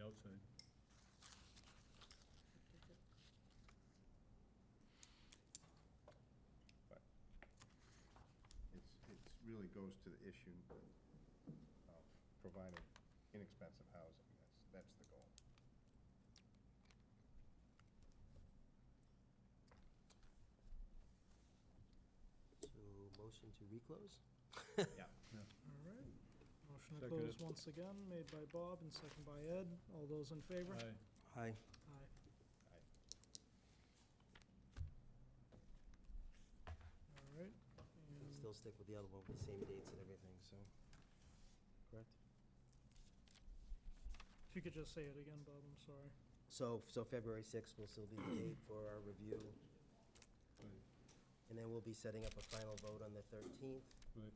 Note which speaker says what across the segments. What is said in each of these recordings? Speaker 1: outside.
Speaker 2: But It's, it's really goes to the issue of providing inexpensive housing, that's, that's the goal.
Speaker 3: So motion to reclose?
Speaker 2: Yeah.
Speaker 4: All right. Motion to
Speaker 1: Second.
Speaker 4: close once again, made by Bob and second by Ed. All those in favor?
Speaker 1: Aye.
Speaker 3: Aye.
Speaker 4: Aye.
Speaker 2: Aye.
Speaker 4: All right. and-
Speaker 3: Still stick with the other one, with the same dates and everything, so, correct?
Speaker 4: If you could just say it again, Bob, I'm sorry.
Speaker 3: So, so February 6th will still be the date for our review,
Speaker 1: Right,
Speaker 3: and then we'll be setting up a final vote on the 13th
Speaker 1: right.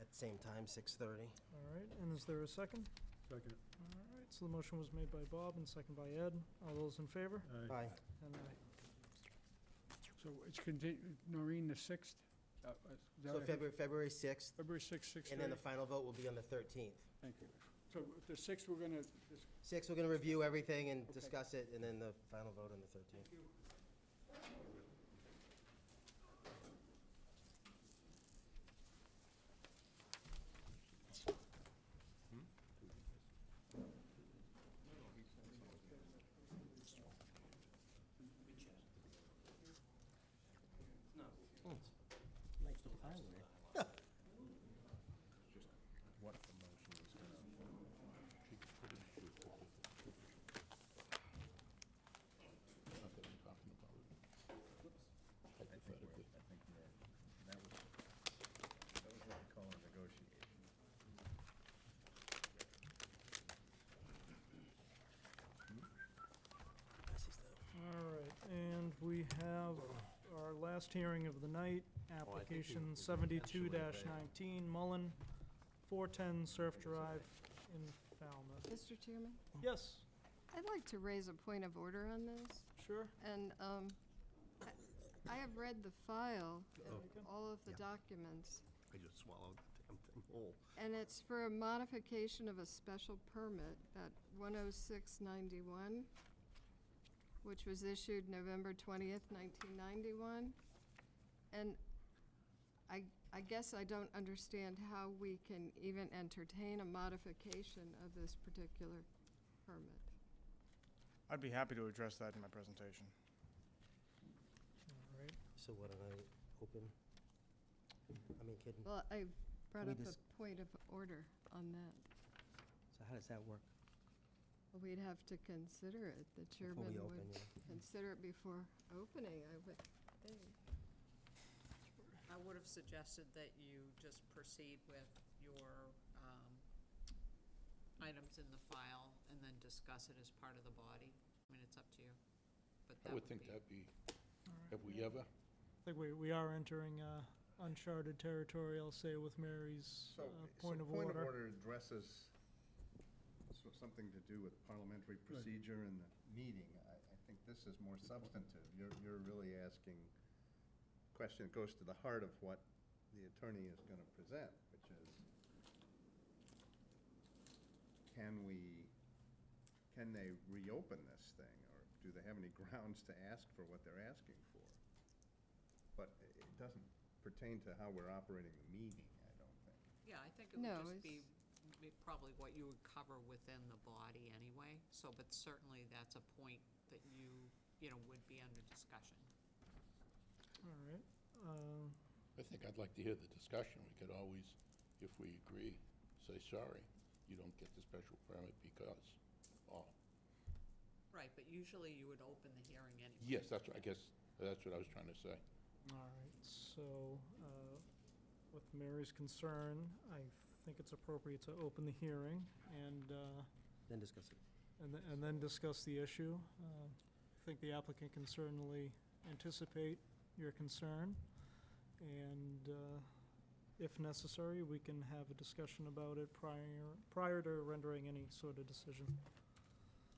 Speaker 3: at the same time, 6:30.
Speaker 4: All right, and is there a second?
Speaker 1: Second.
Speaker 4: All right, so the motion was made by Bob and second by Ed. All those in favor?
Speaker 1: Aye.
Speaker 3: Aye.
Speaker 4: And aye.
Speaker 5: So it's continued, Noreen, the 6th? Uh, uh, is that
Speaker 3: So
Speaker 5: what I-
Speaker 3: February, February 6th,
Speaker 5: February 6th, 6:30?
Speaker 3: and then the final vote will be on the 13th.
Speaker 5: Thank you. So the 6th, we're going to,
Speaker 3: Six, we're going to review everything and discuss it, and then the final vote on the 13th.
Speaker 2: What the motion is gonna,
Speaker 6: Not that I'm talking about it.
Speaker 2: I think we're,
Speaker 6: Hypothetically.
Speaker 2: I think we're, that was, that was what we call a negotiation.
Speaker 4: All right, and we have our last hearing of the night, application seventy-two nineteen, Mullen, four-ten Surf Drive in Falmouth.
Speaker 7: Mr. Chairman,
Speaker 4: Yes,
Speaker 7: I'd like to raise a point of order on this,
Speaker 4: sure.
Speaker 7: and um, I I have read the file,
Speaker 4: Oh.
Speaker 7: all of the
Speaker 6: Yeah.
Speaker 7: documents,
Speaker 6: I just swallowed the damn thing whole.
Speaker 7: and it's for a modification of a special permit at 10691, which was issued November 20th, 1991. And I I guess I don't understand how we can even entertain a modification of this particular permit.
Speaker 8: I'd be happy to address that in my presentation.
Speaker 4: All right,
Speaker 3: So what, do I open? I mean, kidding.
Speaker 7: Well, I brought
Speaker 3: We
Speaker 7: up a
Speaker 3: dis-
Speaker 7: point of order on that.
Speaker 3: So how does that work?
Speaker 7: We'd have to consider it. The
Speaker 3: we
Speaker 7: chairman
Speaker 3: open,
Speaker 7: would
Speaker 3: yeah.
Speaker 7: consider it before opening, I would think.
Speaker 9: I would have suggested that you just proceed with your um, items in the file and then discuss it as part of the body. I mean, it's up to you, but
Speaker 6: I
Speaker 9: that
Speaker 6: would
Speaker 9: would
Speaker 6: think
Speaker 9: be.
Speaker 6: that'd be, have we ever?
Speaker 4: I think we, we are entering uh, uncharted territory, I'll say, with Mary's uh,
Speaker 2: So, so
Speaker 4: point of order.
Speaker 2: addresses so- something to do with parliamentary procedure and the meeting. I, I think this is more substantive. You're, you're really asking, question that goes to the heart of what the attorney is going to present, which is, can we, can they reopen this thing? Or do they have any grounds to ask for what they're asking for? But it- it doesn't pertain to how we're operating the meeting, I don't think.
Speaker 9: Yeah, I think it would
Speaker 7: No,
Speaker 9: just be
Speaker 7: it's-
Speaker 9: be probably what you would cover within the body anyway. So, but certainly that's a point that you, you know, would be under discussion.
Speaker 4: All right, um,
Speaker 6: I think I'd like to hear the discussion. We could always, if we agree, say, sorry, you don't get the special permit because, oh,
Speaker 9: Right, but usually you would open the hearing anyway.
Speaker 6: yes, that's, what- I guess, that's what I was trying to say.
Speaker 4: all right, so uh, with Mary's concern, I think it's appropriate to open the hearing and uh,
Speaker 3: Then discuss it.
Speaker 4: And then, and then discuss the issue. Uh, I think the applicant can certainly anticipate your concern, and uh, if necessary, we can have a discussion about it prior, prior to rendering any sort of decision.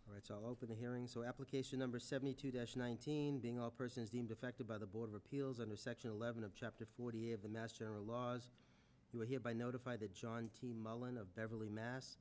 Speaker 3: All right, so I'll open the hearing. So application number seventy-two nineteen, being all persons deemed affected by the Board of Appeals under section eleven of chapter forty-eight of the Mass General Laws, you are hereby notified that John T. Mullen of Beverly, Mass.,